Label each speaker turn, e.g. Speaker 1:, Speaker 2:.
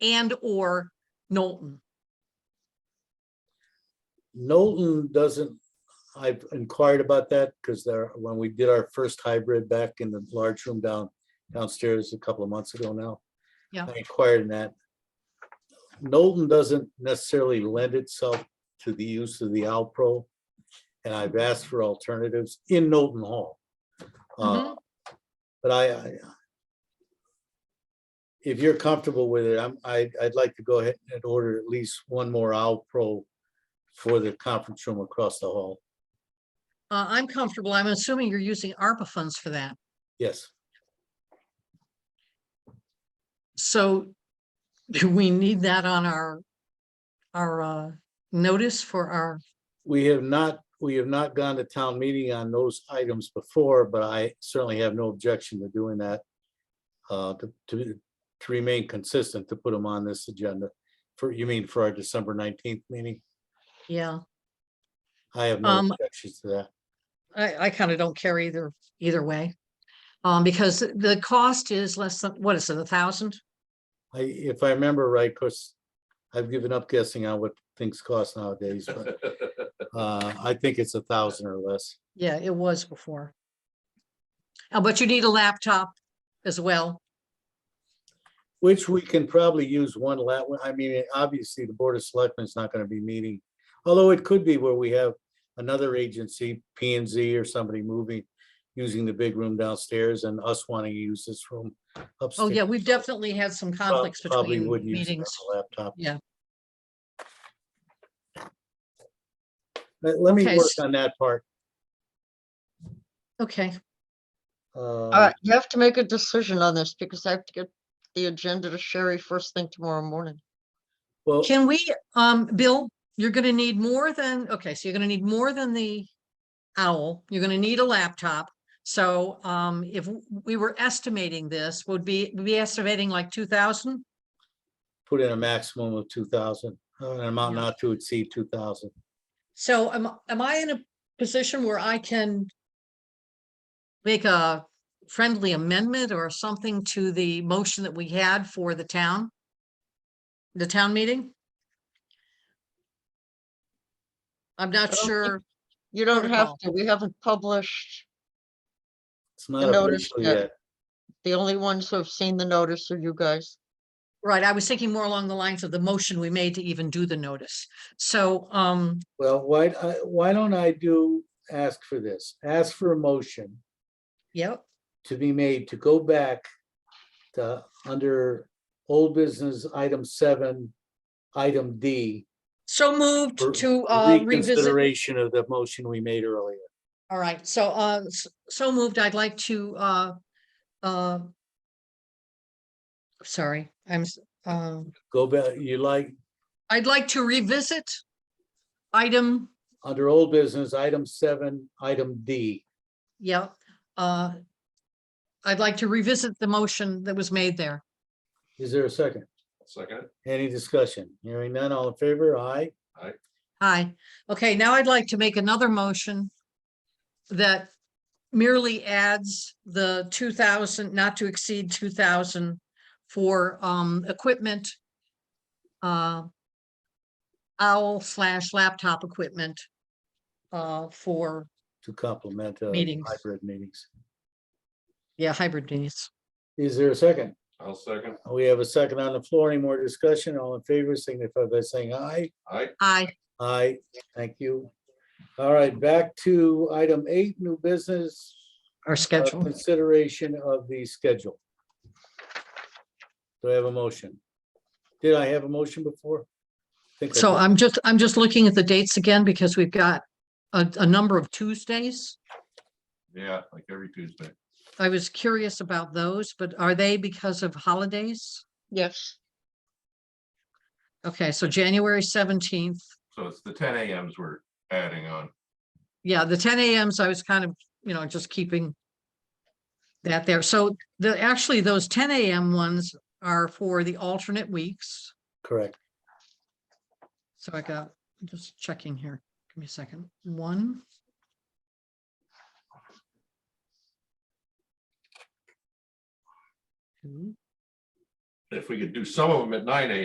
Speaker 1: and/or Knowlton.
Speaker 2: Knowlton doesn't, I've inquired about that because there, when we did our first hybrid back in the large room down downstairs a couple of months ago now.
Speaker 1: Yeah.
Speaker 2: I inquired in that. Knowlton doesn't necessarily lend itself to the use of the Alpro. And I've asked for alternatives in Knowlton Hall. Uh, But I, I- if you're comfortable with it, I'm, I, I'd like to go ahead and order at least one more Alpro for the conference room across the hall.
Speaker 1: Uh, I'm comfortable. I'm assuming you're using ARPA funds for that.
Speaker 2: Yes,
Speaker 1: So do we need that on our, our, uh, notice for our,
Speaker 2: we have not, we have not gone to town meeting on those items before, but I certainly have no objection to doing that. Uh, to, to, to remain consistent, to put them on this agenda for, you mean for our December nineteenth meeting?
Speaker 1: yeah,
Speaker 2: I have no
Speaker 1: Um,
Speaker 2: objections to that.
Speaker 1: I, I kind of don't care either, either way. Um, because the cost is less than, what is it, a thousand?
Speaker 2: I, if I remember right, because I've given up guessing on what things cost nowadays, but, uh, I think it's a thousand or less.
Speaker 1: Yeah, it was before. Uh, but you need a laptop as well.
Speaker 2: Which we can probably use one lat, I mean, obviously, the Board of Selectmen is not gonna be meeting. Although it could be where we have another agency, P and Z or somebody moving, using the big room downstairs and us wanting to use this room
Speaker 1: Oh,
Speaker 2: upstairs.
Speaker 1: yeah, we've definitely had some
Speaker 2: Prob-
Speaker 1: conflicts
Speaker 2: probably
Speaker 1: between
Speaker 2: would use it on
Speaker 1: meetings.
Speaker 2: the Laptop.
Speaker 1: Yeah.
Speaker 2: Let, let me
Speaker 1: Okay,
Speaker 2: work
Speaker 1: s-
Speaker 2: on that part.
Speaker 1: Okay,
Speaker 3: All
Speaker 2: Uh,
Speaker 3: right, you have to make a decision on this because I have to get the agenda to Sherry first thing tomorrow morning.
Speaker 2: well,
Speaker 1: can we, um, Bill, you're gonna need more than, okay, so you're gonna need more than the owl. You're gonna need a laptop. So, um, if w- we were estimating this, would be, we'd be estimating like two thousand?
Speaker 2: put in a maximum of two thousand, uh, an amount
Speaker 1: Yeah.
Speaker 2: not to exceed two thousand.
Speaker 1: So am, am I in a position where I can make a friendly amendment or something to the motion that we had for the town? The town meeting? I'm not
Speaker 3: I don't think-
Speaker 1: sure.
Speaker 3: You don't have
Speaker 1: Protocol.
Speaker 3: to, we haven't published.
Speaker 2: It's not
Speaker 3: notice
Speaker 2: official
Speaker 3: that-
Speaker 2: yet.
Speaker 3: The only ones who have seen the notice are you guys.
Speaker 1: Right, I was thinking more along the lines of the motion we made to even do the notice. So, um,
Speaker 2: Well, why, I- why don't I do, ask for this, ask for a motion
Speaker 1: yep,
Speaker 2: to be made to go back to, under old business, item seven, item D.
Speaker 1: so moved
Speaker 2: for-
Speaker 1: to
Speaker 2: for
Speaker 1: uh, revisit.
Speaker 2: Reconsideration of the motion we made earlier.
Speaker 1: All right, so, uh, s- so moved, I'd like to, uh, uh, sorry, I'm, s- um,
Speaker 2: Go back, you like,
Speaker 1: I'd like to revisit item,
Speaker 2: under old business, item seven, item D.
Speaker 1: yeah, uh, I'd like to revisit the motion that was made there.
Speaker 2: Is there a second?
Speaker 4: Second,
Speaker 2: Any discussion? Hearing none, all in favor? Aye.
Speaker 1: Hi, okay, now I'd like to make another motion that merely adds the two thousand, not to exceed two thousand for um equipment. uh, Owl slash laptop equipment uh for,
Speaker 2: To complement uh,
Speaker 1: Meetings.
Speaker 2: hybrid meetings.
Speaker 1: yeah, hybrid needs.
Speaker 2: Is there a second?
Speaker 4: I'll second.
Speaker 2: We have a second on the floor. Any more discussion? All in favor signify by saying aye.
Speaker 4: I,
Speaker 1: I,
Speaker 2: Aye, thank you. All right, back to item eight, new business.
Speaker 1: our
Speaker 2: uh,
Speaker 1: schedule,
Speaker 2: Consideration of the schedule. Do I have a motion? Did I have a motion before? Think I
Speaker 1: so uh,
Speaker 2: did.
Speaker 1: I'm just, I'm just looking at the dates again because we've got a, a number of Tuesdays.
Speaker 4: yeah, like every Tuesday.
Speaker 1: I was curious about those, but are they because of holidays?
Speaker 3: Yes,
Speaker 1: Okay, so January seventeenth,
Speaker 4: So it's the ten AMs we're adding on.
Speaker 1: yeah, the ten AMs, I was kind of, you know, just keeping that there. So the, actually, those ten AM ones are for the alternate weeks.
Speaker 2: Correct.
Speaker 1: So I got, I'm just checking here. Give me a second. One. two,
Speaker 4: if we could do some of them at nine AM.